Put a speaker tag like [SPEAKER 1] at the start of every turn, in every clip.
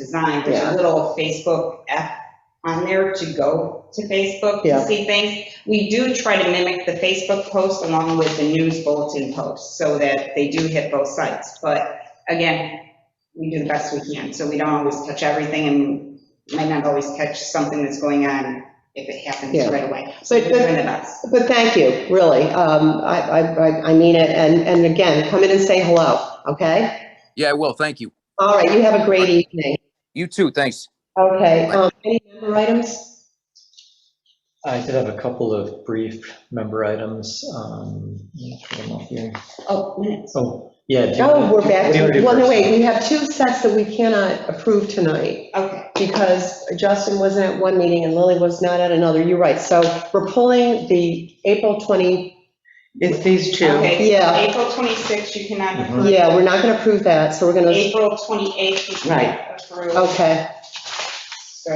[SPEAKER 1] design, there's
[SPEAKER 2] Yeah.
[SPEAKER 1] a little Facebook app on there to go to Facebook to
[SPEAKER 2] Yeah.
[SPEAKER 1] see things. We do try to mimic the Facebook post along with the news bulletin post, so that they do hit both sites. But again, we do the best we can, so we don't always catch everything, and might not always catch something that's going on if it happens
[SPEAKER 2] Yeah.
[SPEAKER 1] right away. So
[SPEAKER 2] But-
[SPEAKER 1] we're
[SPEAKER 2] but-
[SPEAKER 1] doing the best.
[SPEAKER 2] But thank you, really. Um, I, I, I- I mean it, and, and again, come in and say hello, okay?
[SPEAKER 3] Yeah, I will. Thank you.
[SPEAKER 2] All right, you have a great evening.
[SPEAKER 3] You too. Thanks.
[SPEAKER 2] Okay, um, any member items?
[SPEAKER 4] I did have a couple of brief member items. um, let me put them up here.
[SPEAKER 1] Oh, minutes.
[SPEAKER 4] Oh, yeah. do you
[SPEAKER 2] No,
[SPEAKER 4] wanna-
[SPEAKER 2] we're back.
[SPEAKER 4] What do you wanna do
[SPEAKER 2] Well, no,
[SPEAKER 4] first?
[SPEAKER 2] wait, we have two sets that we cannot approve tonight
[SPEAKER 1] Okay,
[SPEAKER 2] because Justin wasn't at one meeting and Lily was not at another. You're right. So we're pulling the April 20,
[SPEAKER 5] It's these two.
[SPEAKER 1] okay. so
[SPEAKER 2] Yeah.
[SPEAKER 1] April 26th, you cannot approve.
[SPEAKER 2] yeah, we're not going to approve Oh, that, so we're going to,
[SPEAKER 1] April 28th. we
[SPEAKER 5] Right.
[SPEAKER 1] approved,
[SPEAKER 2] okay.
[SPEAKER 1] So.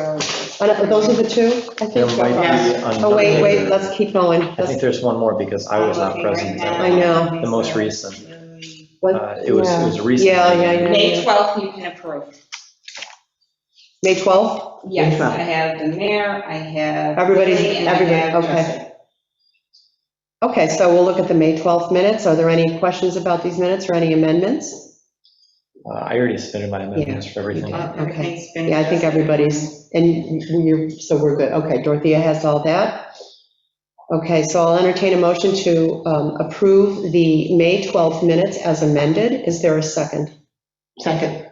[SPEAKER 2] And are uh, Those are the two, I think.
[SPEAKER 4] There might be another.
[SPEAKER 2] Oh, wait, wait, let's keep going.
[SPEAKER 4] I think there's one more because I was not
[SPEAKER 1] I'm looking right
[SPEAKER 4] present.
[SPEAKER 1] now.
[SPEAKER 2] I know.
[SPEAKER 4] The most recent.
[SPEAKER 2] What-
[SPEAKER 4] Uh, It was, it was recent.
[SPEAKER 2] Yeah, yeah, yeah.
[SPEAKER 1] May 12th, you can approve.
[SPEAKER 2] May 12th?
[SPEAKER 1] Yes,
[SPEAKER 5] April.
[SPEAKER 1] I have the mayor, I have.
[SPEAKER 2] Everybody's-
[SPEAKER 1] Lily, and I
[SPEAKER 2] everybody,
[SPEAKER 1] have
[SPEAKER 2] okay.
[SPEAKER 1] Justin.
[SPEAKER 2] Okay, so we'll look at the May 12th minutes. Are there any questions about these minutes or any amendments?
[SPEAKER 4] Uh, I already submitted my amendments for everything.
[SPEAKER 2] did.
[SPEAKER 1] Uh, Everything's been.
[SPEAKER 2] Yeah, I think
[SPEAKER 1] adjusted.
[SPEAKER 2] everybody's, and you're, so we're good. Okay, Dorothea has all that. Okay, so I'll entertain a motion to um, approve the May 12th minutes as amended. Is there a second?
[SPEAKER 5] Second,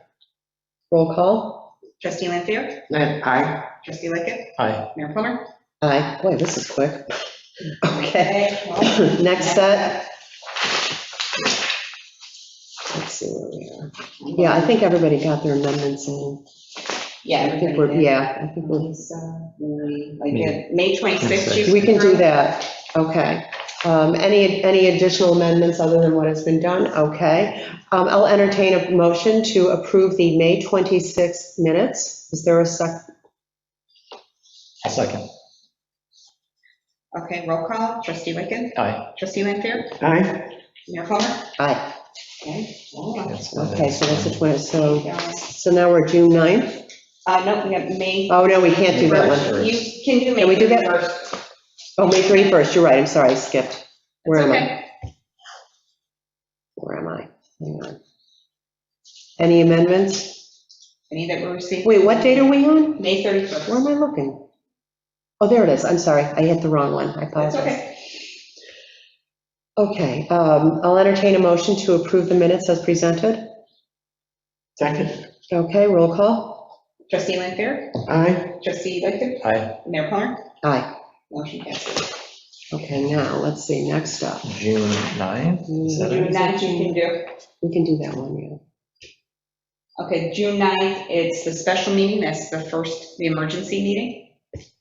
[SPEAKER 2] Roll call?
[SPEAKER 1] Trustee Lanfair,
[SPEAKER 5] aye.
[SPEAKER 1] trustee Lickett,
[SPEAKER 4] Aye.
[SPEAKER 1] Mayor Plummer.
[SPEAKER 2] Aye. Boy, this is quick. Okay,
[SPEAKER 1] well,
[SPEAKER 2] next set. Let's see where we are. Yeah, I think everybody got their amendments in.
[SPEAKER 1] Yeah.
[SPEAKER 2] I think
[SPEAKER 1] everybody
[SPEAKER 2] we're,
[SPEAKER 1] did.
[SPEAKER 2] yeah, I think we're,
[SPEAKER 1] So, we- Like, yeah, May 26th. you
[SPEAKER 2] we can do that, okay. Um, Any, any additional amendments other than what has been done? Okay. Um, I'll entertain a motion to approve the May 26th minutes. Is there a sec,
[SPEAKER 4] I'll second.
[SPEAKER 1] Okay, roll call, trustee Lickett,
[SPEAKER 4] Aye.
[SPEAKER 1] trustee Lanfair,
[SPEAKER 5] Aye.
[SPEAKER 1] Mayor Plummer.
[SPEAKER 2] aye,
[SPEAKER 1] Okay. well,
[SPEAKER 4] That's my
[SPEAKER 2] okay, so that's the
[SPEAKER 4] next
[SPEAKER 2] 20, so,
[SPEAKER 1] yeah.
[SPEAKER 2] so now we're June 9th?
[SPEAKER 1] Uh, no, we have May
[SPEAKER 2] Oh, no, we can't do that one.
[SPEAKER 1] First, You can do May.
[SPEAKER 2] Can we do that?
[SPEAKER 1] first.
[SPEAKER 2] Oh, May 31st, you're right, I'm sorry, I skipped. Where am I?
[SPEAKER 1] Okay.
[SPEAKER 2] Where am I? Hang on. Any amendments?
[SPEAKER 1] Any that were received?
[SPEAKER 2] Wait, what date are we on?
[SPEAKER 1] May
[SPEAKER 2] Where
[SPEAKER 1] 31st.
[SPEAKER 2] am I looking? Oh, there it is, I'm sorry, I hit the wrong one, I
[SPEAKER 1] That's
[SPEAKER 2] apologize.
[SPEAKER 1] okay.
[SPEAKER 2] Okay, um, I'll entertain a motion to approve the minutes as presented.
[SPEAKER 5] Second,
[SPEAKER 2] Okay, roll call.
[SPEAKER 1] Trustee Lanfair,
[SPEAKER 5] aye.
[SPEAKER 1] trustee Lickett,
[SPEAKER 4] one. Aye.
[SPEAKER 1] Mayor Plummer,
[SPEAKER 2] Aye.
[SPEAKER 1] motion passes.
[SPEAKER 2] Okay, now, let's see, next up.
[SPEAKER 4] June 9th? Is that
[SPEAKER 1] June
[SPEAKER 4] it?
[SPEAKER 1] 9th, you can do.
[SPEAKER 2] We can do that one, yeah.
[SPEAKER 1] Okay, June 9th, it's the special meeting, that's the first, the emergency meeting.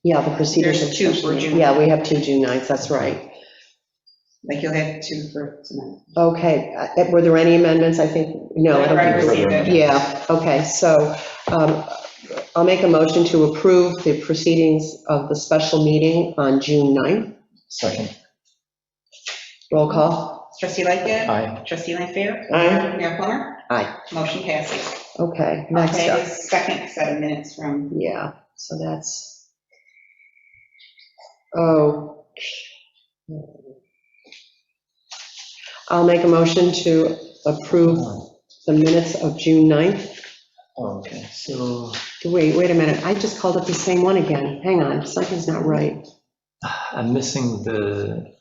[SPEAKER 2] Yeah, the procedures.
[SPEAKER 1] There's two for June.
[SPEAKER 2] Yeah, we have two June 9th, that's right.
[SPEAKER 1] Like you'll have two for tonight.
[SPEAKER 2] Okay, uh, were there any amendments? I think, no, I don't think.
[SPEAKER 1] Whatever I received.
[SPEAKER 2] Yeah, okay, so um, I'll make a motion to approve the proceedings of the special meeting on June 9th.
[SPEAKER 4] Second.
[SPEAKER 2] Roll call.
[SPEAKER 1] Trustee Lickett,
[SPEAKER 4] Aye.
[SPEAKER 1] trustee Lanfair,
[SPEAKER 5] Aye.
[SPEAKER 1] Mayor Plummer.
[SPEAKER 2] Aye.
[SPEAKER 1] Motion passes.
[SPEAKER 2] Okay, next
[SPEAKER 1] Okay,
[SPEAKER 2] up.
[SPEAKER 1] Second set of minutes from
[SPEAKER 2] Yeah, so that's, oh. I'll make a motion to approve the minutes of June 9th.
[SPEAKER 4] Um, Okay, so
[SPEAKER 2] Wait, wait a minute, I just called up the same one again. Hang on, something's not right.
[SPEAKER 4] I'm missing the,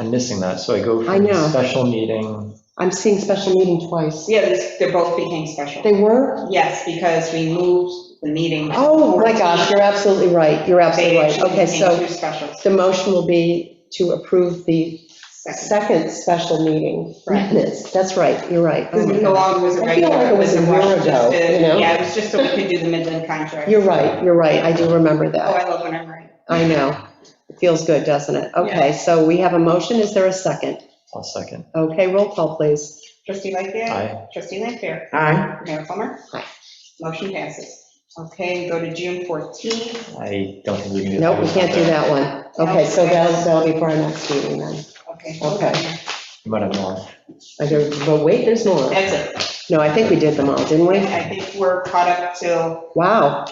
[SPEAKER 4] I'm missing that. So I go
[SPEAKER 2] I
[SPEAKER 4] from
[SPEAKER 2] know.
[SPEAKER 4] special meeting.
[SPEAKER 2] I'm seeing special meeting twice.
[SPEAKER 1] Yeah, these- they both became special.
[SPEAKER 2] They were?
[SPEAKER 1] Yes, because we moved the meeting.
[SPEAKER 2] Oh, my gosh, you're absolutely right, you're absolutely
[SPEAKER 1] They
[SPEAKER 2] right.
[SPEAKER 1] actually
[SPEAKER 2] Okay,
[SPEAKER 1] became
[SPEAKER 2] so
[SPEAKER 1] two specials.
[SPEAKER 2] the motion will be to approve the
[SPEAKER 1] Second.
[SPEAKER 2] second special meeting
[SPEAKER 1] Right.
[SPEAKER 2] minutes. That's right, you're right. Oh
[SPEAKER 1] Because
[SPEAKER 2] my
[SPEAKER 1] no
[SPEAKER 2] gosh.
[SPEAKER 1] longer was a
[SPEAKER 2] I feel
[SPEAKER 1] regular.
[SPEAKER 2] like it was a
[SPEAKER 1] rush
[SPEAKER 2] year
[SPEAKER 1] just
[SPEAKER 2] ago,
[SPEAKER 1] to-
[SPEAKER 2] you know?
[SPEAKER 1] Yeah, it was just so we could do the Midland contract.
[SPEAKER 2] You're right, you're right, I do remember
[SPEAKER 1] Oh,
[SPEAKER 2] that.
[SPEAKER 1] I love when I'm right.
[SPEAKER 2] I know. It feels good, doesn't it? Okay, so we have a motion, is there a second?
[SPEAKER 4] I'll second.
[SPEAKER 2] Okay, roll call, please.
[SPEAKER 1] Trustee Lightgev,
[SPEAKER 4] Aye.
[SPEAKER 1] trustee Lanfair,
[SPEAKER 5] Aye.
[SPEAKER 1] Mayor Plummer.
[SPEAKER 2] Aye.
[SPEAKER 1] Motion passes. Okay, go to June 14th.
[SPEAKER 4] I don't think we can do.
[SPEAKER 2] Nope, we can't do that one. Okay, so that'll, that'll be for our next meeting then.
[SPEAKER 1] Okay.
[SPEAKER 2] Okay.
[SPEAKER 4] You might have more.
[SPEAKER 2] I don't- But wait, there's more.
[SPEAKER 1] That's it.
[SPEAKER 2] No, I think we did them all, didn't we?
[SPEAKER 1] I think we're caught up till
[SPEAKER 2] Wow.